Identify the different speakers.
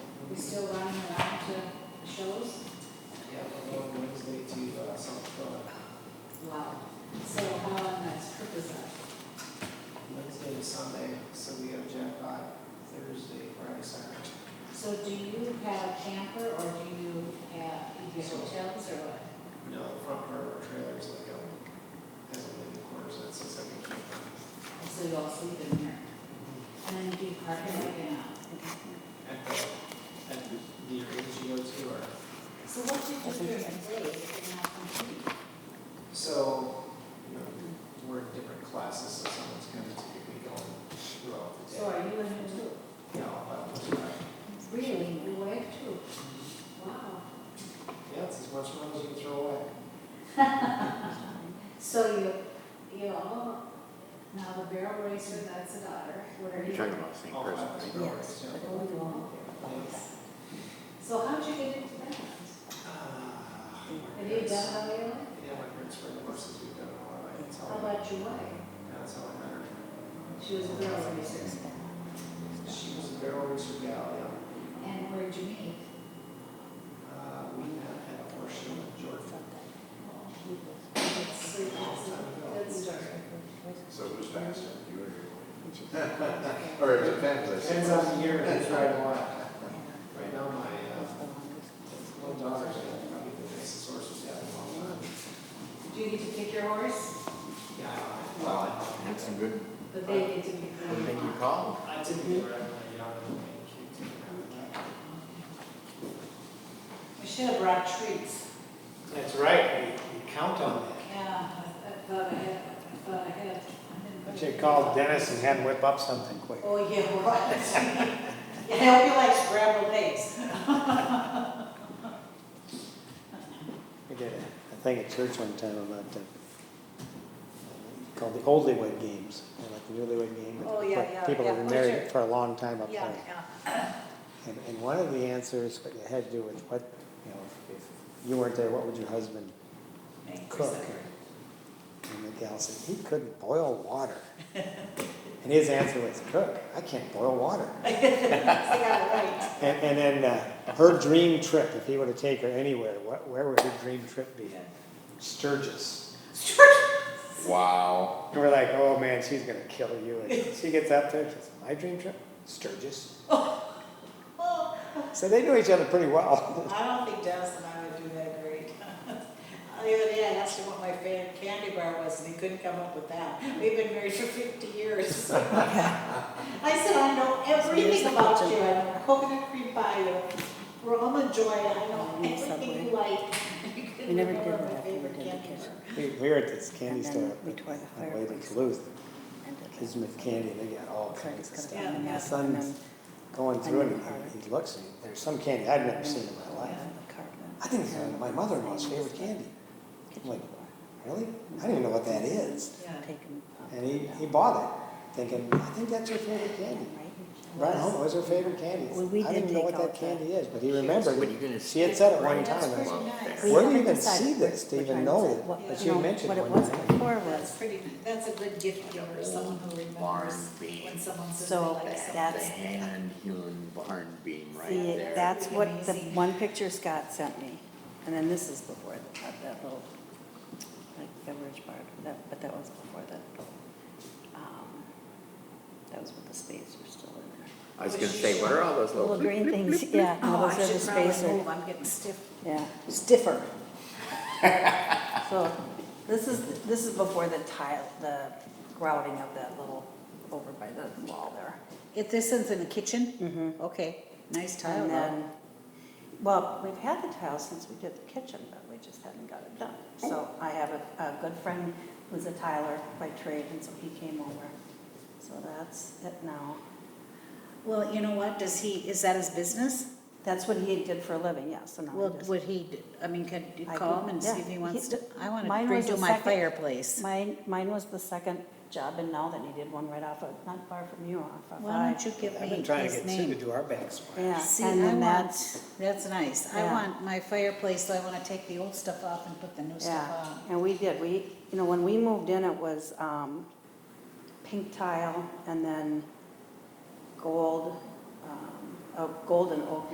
Speaker 1: uh,
Speaker 2: um, do you have camper or do you have, do you have hotels or what?
Speaker 1: You know, the front part of our trailer is like out, has a living quarters, that's a second camper.
Speaker 2: And So you all sleep in here? And then do you park it like in a?
Speaker 1: At the, at the, the areas you go to are,
Speaker 2: So what do you do during the day if you're not complete?
Speaker 1: so, you know, we're in different classes, so someone's gonna typically go throughout the
Speaker 2: So
Speaker 1: day.
Speaker 2: are you in here too?
Speaker 1: You know, about what's right.
Speaker 2: Really, you wake too? Wow.
Speaker 1: Yeah, it's as much money as you can throw away.
Speaker 2: So you, you all, now the barrel racer, that's a daughter, what are
Speaker 3: You're
Speaker 2: you?
Speaker 3: talking about the same
Speaker 1: All
Speaker 3: person,
Speaker 1: five.
Speaker 3: right?
Speaker 1: Yes, but
Speaker 2: Oh, you all? So how'd you get into that?
Speaker 1: Uh, Have
Speaker 2: Have you done it on your own?
Speaker 1: Yeah, my parents were divorced, we've done it all, right, that's
Speaker 2: How
Speaker 1: how,
Speaker 2: about your wife?
Speaker 1: that's how I met her.
Speaker 2: She was a barrel racer.
Speaker 1: She was a barrel racer gal, yeah.
Speaker 2: And where'd you meet?
Speaker 1: Uh, we had had a horse show in Georgia.
Speaker 2: That's, that's a good story.
Speaker 4: So who's faster, you or your wife? Or it depends, I
Speaker 1: Depends
Speaker 4: suppose.
Speaker 1: on the year, it's right a lot. Right now, my, uh, little daughter's got probably the nicest horse she's had in a long time.
Speaker 2: Do you get to pick your horse?
Speaker 1: Yeah, I- well,
Speaker 3: That's some good,
Speaker 2: But they get to pick
Speaker 3: I
Speaker 2: their
Speaker 3: think you
Speaker 2: own.
Speaker 3: called.
Speaker 1: I, I typically ride my yacht and my kids around that.
Speaker 2: We should have brought treats.
Speaker 1: That's right, we, we count on that.
Speaker 2: Yeah, I- I thought I had, I thought I had. I
Speaker 5: But
Speaker 2: didn't-
Speaker 5: you call Dennis and had him whip up something quick.
Speaker 2: Oh, yeah, right. Yeah, I hope you like scrambled eggs.
Speaker 5: We did a- a thing at church one time about the, called the Oldywed Games, you know, like the Newlywed Game. but
Speaker 2: Oh, yeah,
Speaker 5: for
Speaker 2: yeah,
Speaker 5: People that
Speaker 2: yeah,
Speaker 5: have
Speaker 2: oh,
Speaker 5: been married
Speaker 2: sure.
Speaker 5: for a long time up
Speaker 2: Yeah,
Speaker 5: there.
Speaker 2: yeah.
Speaker 5: And, and one of the answers, but it had to do with what, you know, if- if you weren't there, what would your husband
Speaker 2: Thank you,
Speaker 5: cook?
Speaker 2: sucker.
Speaker 5: And the gal said, he couldn't boil water. And his answer was, cook, I can't boil water.
Speaker 2: I got it right.
Speaker 5: And, and then uh, her dream trip, if he were to take her anywhere, wh- where would her dream trip be? Sturgis.
Speaker 4: Wow.
Speaker 5: And we're like, oh man, she's gonna kill you. And she gets up there, she says, my dream trip? Sturgis.
Speaker 2: Oh,
Speaker 5: So they knew each other pretty well.
Speaker 6: I don't think Dennis and I would do that great. The other day, I asked him what my favorite candy bar was, and he couldn't come up with that. We've been married for fifty years. I said, I know everything about you, I know coconut cream pie, you know, Roman joy, I know everything you like.
Speaker 7: We never did
Speaker 6: Remember my
Speaker 7: that. We
Speaker 6: favorite
Speaker 7: did the
Speaker 6: candy
Speaker 7: kitchen.
Speaker 6: bar.
Speaker 5: We we were at this candy
Speaker 7: And then
Speaker 5: store up
Speaker 7: we
Speaker 5: in-
Speaker 7: tore the
Speaker 5: on the way to
Speaker 7: fireworks.
Speaker 5: Duluth,
Speaker 7: And it
Speaker 5: kids with candy, they got all
Speaker 7: looks like
Speaker 5: kinds
Speaker 7: it's
Speaker 5: of stuff.
Speaker 7: gonna be a
Speaker 5: And my
Speaker 7: mess, and
Speaker 5: son's
Speaker 7: then-
Speaker 5: going through it,
Speaker 7: and
Speaker 5: and
Speaker 7: then-
Speaker 5: he- he looks, and there's some candy I've never seen in my life.
Speaker 7: Yeah, the cardboard.
Speaker 5: I think it's my mother-in-law's favorite candy. I'm like, really? I didn't even know what that is.
Speaker 6: Yeah.
Speaker 7: Take 'em up
Speaker 5: And he,
Speaker 7: down.
Speaker 5: he bought it, thinking, I think that's your favorite candy.
Speaker 7: Right?
Speaker 5: Right home, it was her favorite candy.
Speaker 7: Well, we
Speaker 5: I didn't
Speaker 7: didn't
Speaker 5: know what
Speaker 7: take
Speaker 5: that
Speaker 7: out
Speaker 5: candy
Speaker 7: the-
Speaker 5: is, but he remembered
Speaker 3: What are you
Speaker 5: it.
Speaker 3: gonna
Speaker 5: She had said it one
Speaker 6: That's
Speaker 5: time. I
Speaker 6: pretty
Speaker 5: was-
Speaker 6: nice.
Speaker 7: We
Speaker 5: Where do you
Speaker 7: haven't
Speaker 5: even
Speaker 7: decided
Speaker 5: see
Speaker 7: which-
Speaker 5: this to
Speaker 7: which
Speaker 5: even
Speaker 7: one
Speaker 5: know
Speaker 7: is
Speaker 5: it?
Speaker 7: it, what-
Speaker 5: But
Speaker 7: you
Speaker 5: you
Speaker 7: know,
Speaker 5: mentioned
Speaker 7: What it
Speaker 5: one
Speaker 7: was
Speaker 5: time.
Speaker 7: before
Speaker 6: That's
Speaker 7: was,
Speaker 6: pretty, that's a good gift giver, someone who remembers
Speaker 3: Barn beam.
Speaker 6: when someone says they
Speaker 7: So
Speaker 6: like something.
Speaker 3: The
Speaker 7: that's-
Speaker 3: hand hewn barn beam right
Speaker 7: see,
Speaker 3: there.
Speaker 7: that's what the
Speaker 6: Amazing.
Speaker 7: one picture Scott sent me, and then this is before that, that little, like, beverage bar, that, but that was before that. um, That was with the spades were still in there.
Speaker 3: I was gonna say, what are all those
Speaker 7: Little
Speaker 3: little?
Speaker 7: green things, yeah, no,
Speaker 6: Oh, I
Speaker 7: those are the
Speaker 6: should probably
Speaker 7: spacer.
Speaker 6: move, I'm getting stiff.
Speaker 7: Yeah, stiffer. So this is, this is before the tile, the grouting of that little, over by the wall there.
Speaker 6: If this is in the kitchen?
Speaker 7: Mhm.
Speaker 6: Okay, nice tile
Speaker 7: And
Speaker 6: though.
Speaker 7: then, well, we've had the tile since we did the kitchen, but we just haven't got it done.
Speaker 6: Oh.
Speaker 7: So I have a, a good friend who's a tiler by trade, and so he came over. So that's it now.
Speaker 6: Well, you know what, does he, is that his business?
Speaker 7: That's what he did for a living, yes, so now
Speaker 6: Well,
Speaker 7: he just.
Speaker 6: would he, d- I mean, could you
Speaker 7: I
Speaker 6: call
Speaker 7: could-
Speaker 6: him and see
Speaker 7: yeah.
Speaker 6: if he wants
Speaker 7: He-
Speaker 6: to, I want to
Speaker 7: mine was
Speaker 6: redo
Speaker 7: the
Speaker 6: my
Speaker 7: second-
Speaker 6: fireplace.
Speaker 7: Mine, mine was the second job in now that he did one right off of, not far from you, off of. uh,
Speaker 6: Why don't you give
Speaker 5: I've
Speaker 6: me
Speaker 5: been trying to
Speaker 6: his
Speaker 5: get Sue to
Speaker 6: name?
Speaker 5: do our back swap.
Speaker 7: Yeah,
Speaker 6: See, I
Speaker 7: and
Speaker 6: want,
Speaker 7: then that's,
Speaker 6: that's nice, I
Speaker 7: Yeah.
Speaker 6: want my fireplace, so I want to take the old stuff off and put the new stuff
Speaker 7: yeah,
Speaker 6: on.
Speaker 7: and we did, we, you know, when we moved in, it was, um, pink tile and then gold, um, oh, gold and oak